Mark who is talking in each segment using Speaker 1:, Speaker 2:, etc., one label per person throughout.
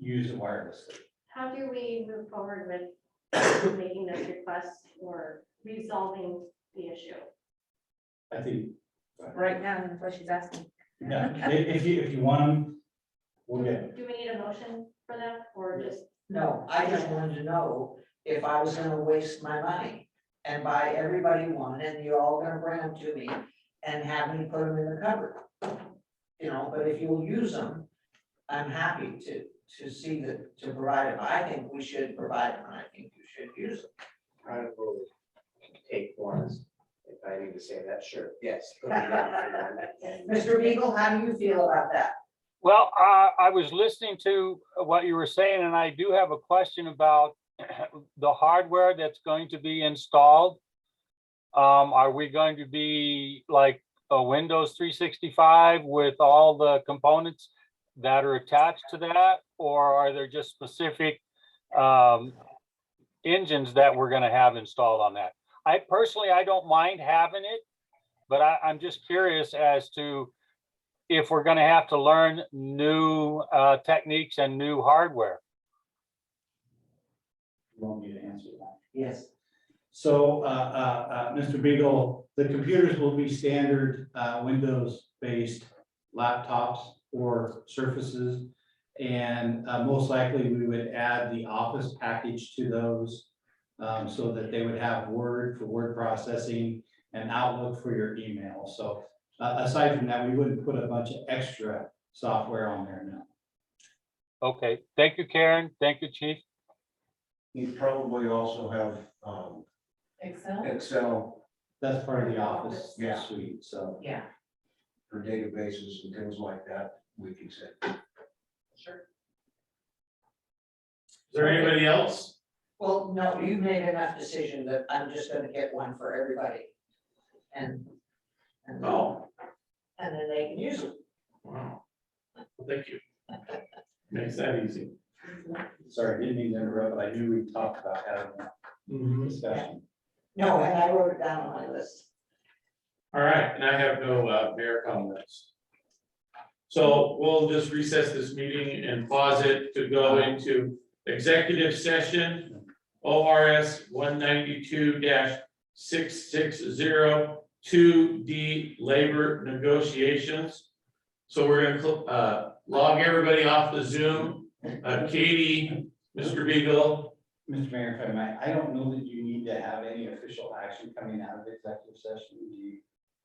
Speaker 1: use it wirelessly.
Speaker 2: How do we move forward with making this request or resolving the issue?
Speaker 1: I think,
Speaker 3: Right now, that's what she's asking.
Speaker 1: yeah, i- if you, if you want them, we'll get 'em.
Speaker 2: Do we need a motion for that or just,
Speaker 4: No, I just wanted to know if I was gonna waste my money and buy everybody one and you're all gonna bring them to me and have me put them in the cupboard. You know, but if you'll use them, I'm happy to, to see that, to provide them. I think we should provide them. I think you should use them.
Speaker 5: I will take ones, if I need to say that, sure, yes. put me down for one.
Speaker 4: Mr. Beagle, how do you feel about that?
Speaker 6: Well, uh, I was listening to what you were saying, and I do have a question about the hardware that's going to be installed. Um, Are we going to be like a Windows 365 with all the components that are attached to that? Or are there just specific um, engines that we're going to have installed on that? I personally, I don't mind having it, but I, I'm just curious as to if we're gonna have to learn new uh, techniques and new hardware.
Speaker 1: you won't need to answer that.
Speaker 4: Yes.
Speaker 1: So, uh, uh, uh, Mr. Beagle, the computers will be standard, uh, Windows-based laptops or surfaces. And, uh, most likely we would add the Office package to those, um, so that they would have Word for word processing and Outlook for your email. So, uh, aside from that, we wouldn't put a bunch of extra software on there now.
Speaker 6: Okay, thank you, Karen. Thank you, Chief.
Speaker 5: You probably also have um,
Speaker 3: Excel?
Speaker 5: Excel
Speaker 1: That's part of the Office
Speaker 5: Yeah.
Speaker 1: suite, so.
Speaker 3: Yeah.
Speaker 5: for databases and things like that, we can set.
Speaker 7: Is there anybody else?
Speaker 4: Well, no, you made enough decision that I'm just gonna get one for everybody. And. and-
Speaker 7: Oh,
Speaker 4: And then they can use them.
Speaker 7: wow. Well, Thank you. Makes that easy.
Speaker 1: Sorry, I didn't mean to interrupt, but I knew we talked about having
Speaker 7: Mm-hmm.
Speaker 1: a discussion.
Speaker 4: No, and I wrote it down on my list.
Speaker 7: All right, and I have no uh, mayor comments. So we'll just recess this meeting and pause it to go into executive session. ORS one ninety-two six six zero two D labor negotiations. So we're gonna cl- uh, log everybody off the Zoom. Uh, Katie, Mr. Beagle,
Speaker 1: Mr. Mayor, if I might, I don't know that you need to have any official action coming out of executive session. Do you,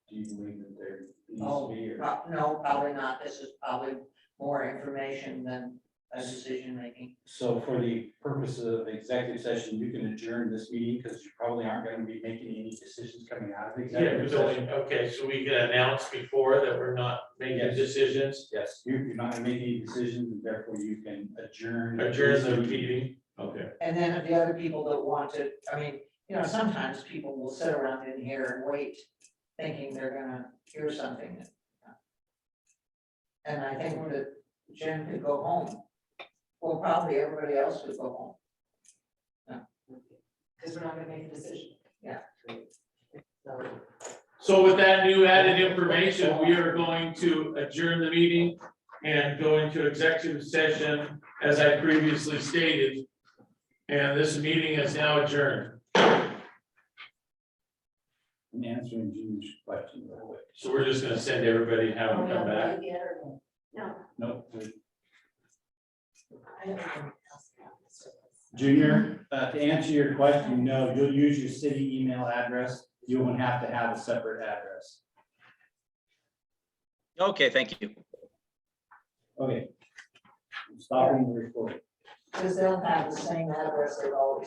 Speaker 1: do you believe that there
Speaker 4: Oh,
Speaker 1: needs to be? or-
Speaker 4: Pro- No, probably not. This is probably more information than a decision making.
Speaker 1: So for the purpose of executive session, you can adjourn this meeting because you probably aren't going to be making any decisions coming out of
Speaker 7: yeah,
Speaker 1: executive
Speaker 7: it was
Speaker 1: session.
Speaker 7: only- okay, so we can announce before that we're not making
Speaker 1: Yes.
Speaker 7: decisions.
Speaker 1: Yes, you- you're not making any decisions, and therefore you can adjourn.
Speaker 7: Adjourn the meeting, okay.
Speaker 4: And then the other people that want to, I mean, you know, sometimes people will sit around in here and wait, thinking they're gonna hear something. And I think that Jim could go home. Well, probably everybody else would go home.
Speaker 3: Because we're not gonna make a decision.
Speaker 7: So with that new added information, we are going to adjourn the meeting and go into executive session, as I previously stated. And this meeting is now adjourned,
Speaker 1: And answering June's question real quick.
Speaker 7: so we're just gonna send everybody and have them come back.
Speaker 2: no?
Speaker 1: Nope. we- Junior, uh, to answer your question, no, you'll use your city email address. You won't have to have a separate address.
Speaker 8: Okay, thank you.
Speaker 1: Okay. I'm Stopping the recording.
Speaker 4: Because they'll have the same address they've always